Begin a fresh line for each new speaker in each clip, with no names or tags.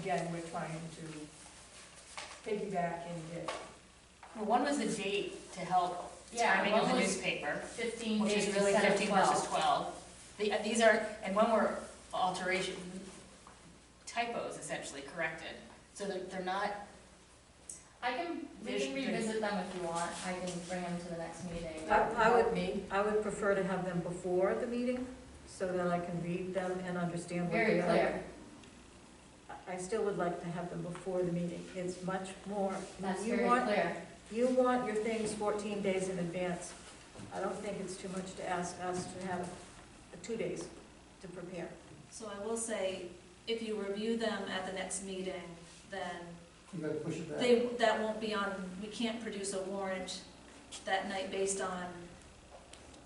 again, we're trying to piggyback and get,
Well, one was the date to help
Yeah,
timing of
one
the
was-
newspaper,
Fifteen
which
days
is really
instead of
fifteen versus
twelve.
twelve. The- uh, These are, and one were alteration typos essentially corrected, so they're, they're not,
I can, we
There's-
can revisit them if you want, I can bring them to the next meeting.
I- I would-
me.
I would prefer to have them before the meeting, so that I can read them and understand what
Very
they are.
clear,
I- I still would like to have them before the meeting, it's much more.
that's
You
very
want-
clear.
You want your things fourteen days in advance. I don't think it's too much to ask us to have uh, two days to prepare.
So I will say, if you review them at the next meeting, then
You gotta push it back.
they, that won't be on, we can't produce a warrant that night based on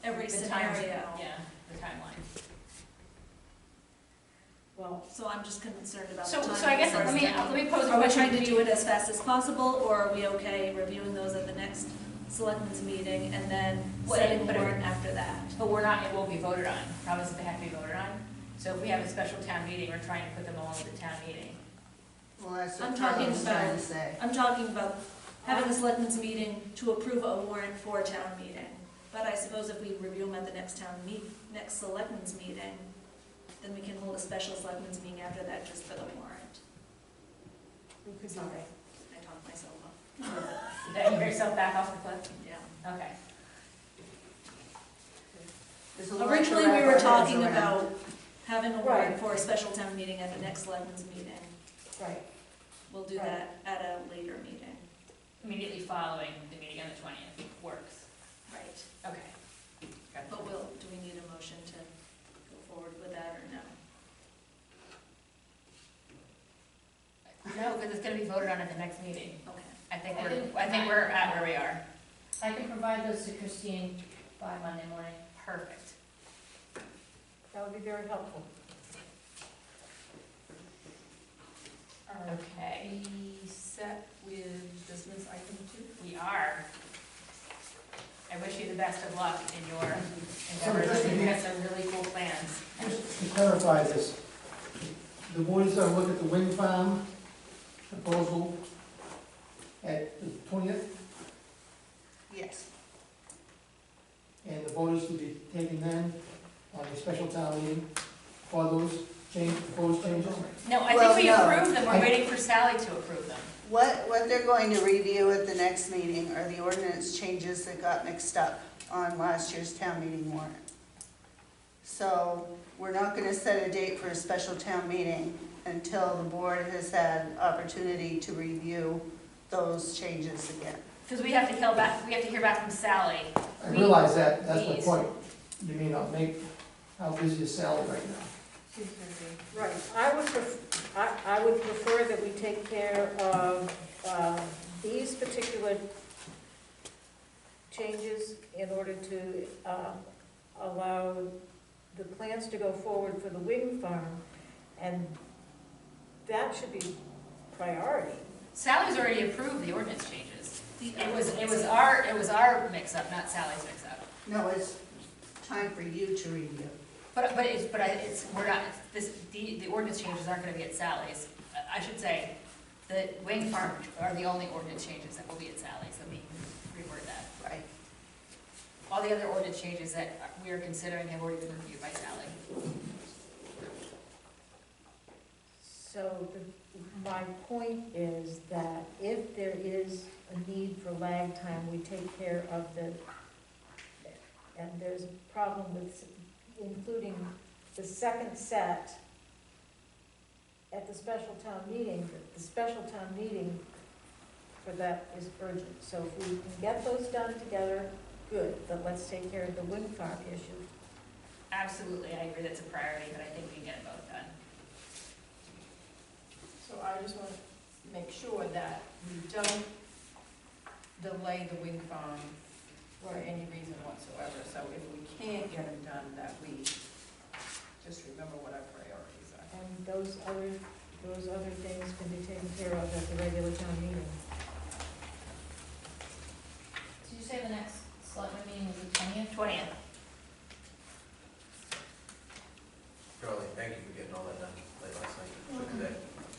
every
The time-
scenario.
yeah, the timeline.
Well,
So I'm just concerned about the
So,
time.
so I guess, let me, let me pose a question.
Are we trying to do it as fast as possible, or are we okay reviewing those at the next selectmen's meeting and then
What-
setting
but-
warrant after that?
But we're not, it won't be voted on, promises they have to be voted on. So if we have a special town meeting, we're trying to put them all at the town meeting.
Well, that's
I'm
what
talking
Charlie was trying
about-
to say.
I'm talking about having a selectmen's meeting to approve a warrant for a town meeting. But I suppose if we review them at the next town meet, next selectmen's meeting, then we can hold a special selectmen's meeting after that just for the warrant.
we could do
Sorry,
that.
I talked myself up,
Did that hear yourself back off the cliff?
yeah.
Okay.
There's a lot to
Originally,
wrap
we
our
were
heads
talking
around.
about having a warrant
Right.
for a special town meeting at the next selectmen's meeting.
Right,
We'll do that at a later meeting.
Immediately following the meeting on the twentieth works.
Right.
Okay.
But will, do we need a motion to go forward with that or no?
No, because it's gonna be voted on at the next meeting.
Okay.
I think
I
we're,
didn't-
I think we're at where we are.
I can provide those to Christine by Monday morning.
Perfect.
that would be very helpful.
Okay, we set with this one's item two? We are. I wish you the best of luck in your endeavors.
just-
You have some really cool plans.
Just to clarify this, the board is gonna look at the wind farm proposal at the twentieth,
Yes,
and the vote is to be taken then on a special town meeting for those change, proposed changes.
No, I
Well,
think we
no.
approved them. We're
I-
waiting for Sally to approve them.
what, what they're going to review at the next meeting are the ordinance changes that got mixed up on last year's town meeting warrant. So, we're not gonna set a date for a special town meeting until the board has had opportunity to review those changes again.
Because we have to hear back, we have to hear back from Sally.
I realize that, that's my
Please.
point. You may not make, how busy is Sally right now?
Right, I would, pref- I, I would prefer that we take care of, um, these particular changes in order to, um, allow the plans to go forward for the wind farm, and that should be priority.
Sally's already approved the ordinance changes. It was, it was our, it was our mix-up, not Sally's mix-up.
No, it's time for you to review.
But, but it's, but I, it's, we're not, this, the, the ordinance changes aren't gonna be at Sally's. I I should say, the Wayne Farm are the only ordinance changes that will be at Sally's, let me reword that.
Right.
All the other ordinance changes that we are considering have already been reviewed by Sally.
So the- my point is that if there is a need for lag time, we take care of the, and there's a problem with including the second set at the special town meeting, but the special town meeting for that is urgent. So if we can get those done together, good, but let's take care of the wind farm issue
Absolutely, I agree that's a priority, but I think we can get both done.
So I just want to make sure that we don't delay the wind farm for any reason whatsoever. So if we can't get them done, that we just remember what our priorities are.
And those other, those other things can be taken care of at the regular town meeting.
Did you say the next selectman meeting was the twentieth?
Twentieth,